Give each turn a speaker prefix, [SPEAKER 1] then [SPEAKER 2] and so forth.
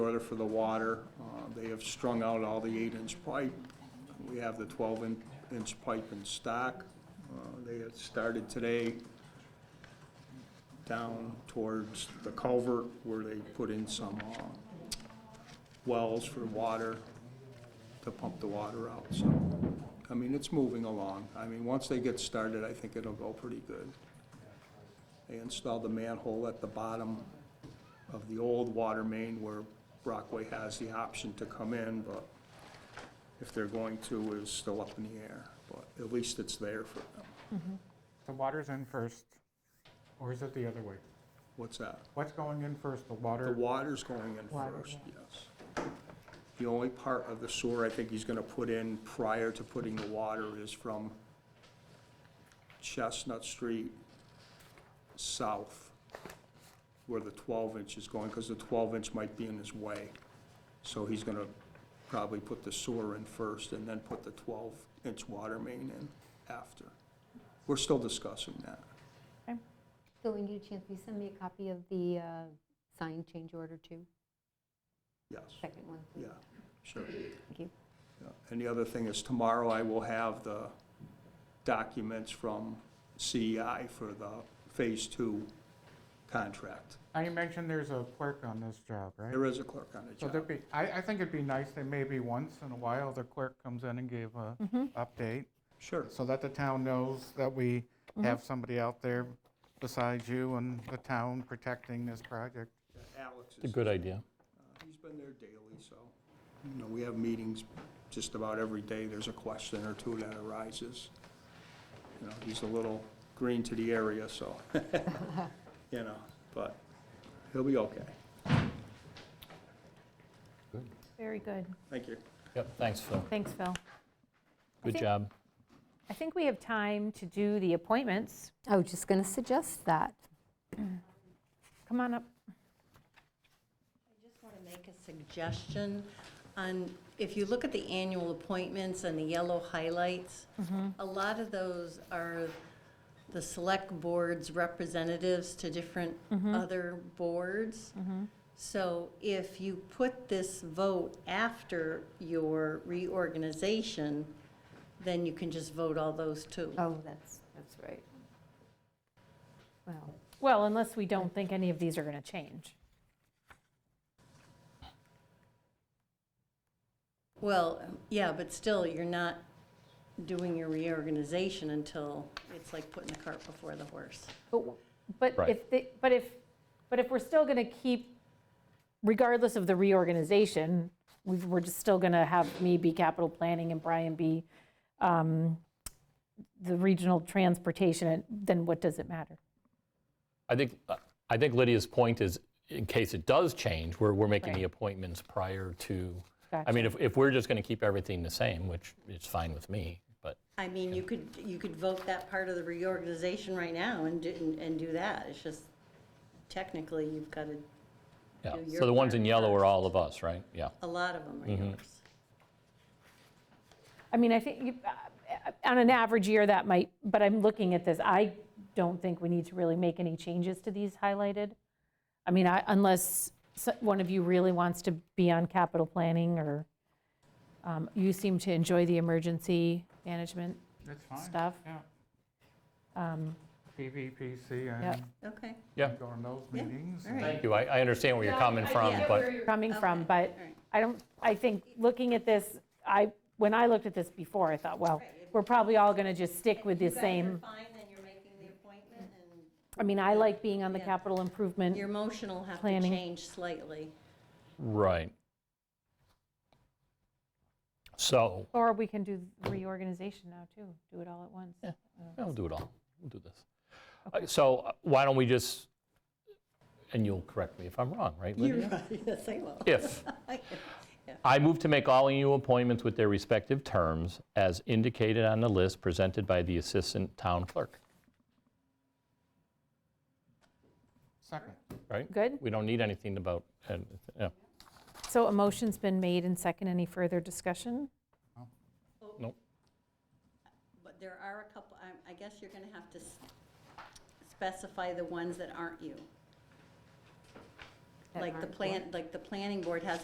[SPEAKER 1] order for the water. Uh, They have strung out all the eight-inch pipe. We have the twelve-inch pipe in stock. Uh, They had started today down towards the culvert where they put in some uh, wells for water to pump the water out, so, I mean, it's moving along. I mean, once they get started, I think it'll go pretty good. They installed the manhole at the bottom of the old water main where Brockway has the option to come in, but if they're going to is still up in the air, but at least it's there for them.
[SPEAKER 2] The water's in first, or is it the other way?
[SPEAKER 1] What's that?
[SPEAKER 2] What's going in first, the
[SPEAKER 1] The
[SPEAKER 2] water?
[SPEAKER 1] water's going in
[SPEAKER 3] Water,
[SPEAKER 1] first, yes. The only part of the sewer I think he's gonna put in prior to putting the water is from Chestnut Street south, where the twelve inch is going, because the twelve inch might be in his way. So he's gonna probably put the sewer in first and then put the twelve inch water main in after. We're still discussing that.
[SPEAKER 4] So when you get a chance, will you send me a copy of the uh, signed change order too?
[SPEAKER 1] Yes,
[SPEAKER 4] Second one,
[SPEAKER 1] yeah,
[SPEAKER 4] please.
[SPEAKER 1] sure.
[SPEAKER 4] Thank you.
[SPEAKER 1] Yeah, And the other thing is tomorrow I will have the documents from CEI for the Phase Two contract.
[SPEAKER 2] Now, you mentioned there's a clerk on this job, right?
[SPEAKER 1] There is a clerk on the
[SPEAKER 2] So there'd
[SPEAKER 1] job.
[SPEAKER 2] be, I, I think it'd be nice that maybe once in a while, the clerk comes in and gave a
[SPEAKER 5] Mm-hmm.
[SPEAKER 2] update,
[SPEAKER 1] Sure,
[SPEAKER 2] so that the town knows that we
[SPEAKER 5] Mm-hmm.
[SPEAKER 2] have somebody out there besides you and the town protecting this project.
[SPEAKER 1] Alex
[SPEAKER 6] A
[SPEAKER 1] is, uh,
[SPEAKER 6] good idea.
[SPEAKER 1] he's been there daily, so, you know, we have meetings just about every day. There's a question or two that arises. You know, he's a little green to the area, so, you know, but he'll be okay.
[SPEAKER 3] Very good.
[SPEAKER 1] Thank you.
[SPEAKER 6] Yep, thanks, Phil.
[SPEAKER 3] Thanks, Phil.
[SPEAKER 6] Good
[SPEAKER 3] think-
[SPEAKER 6] job.
[SPEAKER 3] I think we have time to do the appointments.
[SPEAKER 4] I was just going to suggest that.
[SPEAKER 3] Come on up.
[SPEAKER 5] just want to make a suggestion on, if you look at the annual appointments and the yellow highlights, a lot of those are the select board's representatives to different other boards. So if you put this vote after your reorganization, then you can just vote all those too.
[SPEAKER 4] Oh, that's, that's right. Well,
[SPEAKER 3] Well, unless we don't think any of these are going to change.
[SPEAKER 5] Well, yeah, but still, you're not doing your reorganization until, it's like putting the cart before the horse.
[SPEAKER 3] But w- But
[SPEAKER 6] Right.
[SPEAKER 3] if, they- but if, but if we're still going to keep, regardless of the reorganization, we've- we're just still going to have me be capital planning and Brian be um, the regional transportation, then what does it matter?
[SPEAKER 6] I think, I think Lydia's point is, in case it does change, we're, we're making the appointments prior to, I mean, if, if we're just going to keep everything the same, which is fine with me, but
[SPEAKER 5] I mean, you could, you could vote that part of the reorganization right now and do, and do that. It's just technically, you've got to,
[SPEAKER 6] yeah.
[SPEAKER 5] Do
[SPEAKER 6] So
[SPEAKER 5] your
[SPEAKER 6] the ones
[SPEAKER 5] part
[SPEAKER 6] in yellow are
[SPEAKER 5] first.
[SPEAKER 6] all of us, right? Yeah.
[SPEAKER 5] a lot of them are yours.
[SPEAKER 3] I mean, I think, you- uh, on an average year, that might, but I'm looking at this, I don't think we need to really make any changes to these highlighted. I mean, I- unless so- one of you really wants to be on capital planning, or um, you seem to enjoy the emergency management.
[SPEAKER 2] That's fine.
[SPEAKER 3] Stuff.
[SPEAKER 2] Yeah,
[SPEAKER 3] um,
[SPEAKER 2] PVPC,
[SPEAKER 3] Yep.
[SPEAKER 2] and
[SPEAKER 5] Okay.
[SPEAKER 6] Yeah.
[SPEAKER 2] go on those
[SPEAKER 5] Yeah,
[SPEAKER 2] meetings.
[SPEAKER 5] all right.
[SPEAKER 6] Thank you. I, I understand where you're coming from, but
[SPEAKER 3] Coming from,
[SPEAKER 5] Okay,
[SPEAKER 3] but
[SPEAKER 5] all right.
[SPEAKER 3] I don't, I think, looking at this, I, when I looked at this before, I thought, well,
[SPEAKER 5] Right, if-
[SPEAKER 3] we're probably all going to just stick with the
[SPEAKER 5] If you
[SPEAKER 3] same.
[SPEAKER 5] guys are fine, then you're making the appointment, and
[SPEAKER 3] I mean, I like being on the
[SPEAKER 5] Yeah.
[SPEAKER 3] capital improvement.
[SPEAKER 5] your motion will have to
[SPEAKER 3] Planning.
[SPEAKER 5] change slightly.
[SPEAKER 6] right. So
[SPEAKER 3] Or we can do reorganization now, too, do it all at once.
[SPEAKER 6] Yeah, we'll do it all. We'll do this. Uh, So uh, why don't we just, and you'll correct me if I'm wrong, right,
[SPEAKER 5] You're
[SPEAKER 6] Lydia?
[SPEAKER 5] right, yes, I will.
[SPEAKER 6] If,
[SPEAKER 5] Yeah.
[SPEAKER 6] I move to make all new appointments with their respective terms as indicated on the list presented by the Assistant Town Clerk,
[SPEAKER 2] Second.
[SPEAKER 6] right?
[SPEAKER 3] Good.
[SPEAKER 6] We don't need anything about, uh, yeah.
[SPEAKER 3] So a motion's been made and second. Any further discussion?
[SPEAKER 5] But there are a couple, I- I guess you're going to have to s- specify the ones that aren't you.
[SPEAKER 4] That
[SPEAKER 5] like the
[SPEAKER 4] aren't
[SPEAKER 5] plan, like the planning board has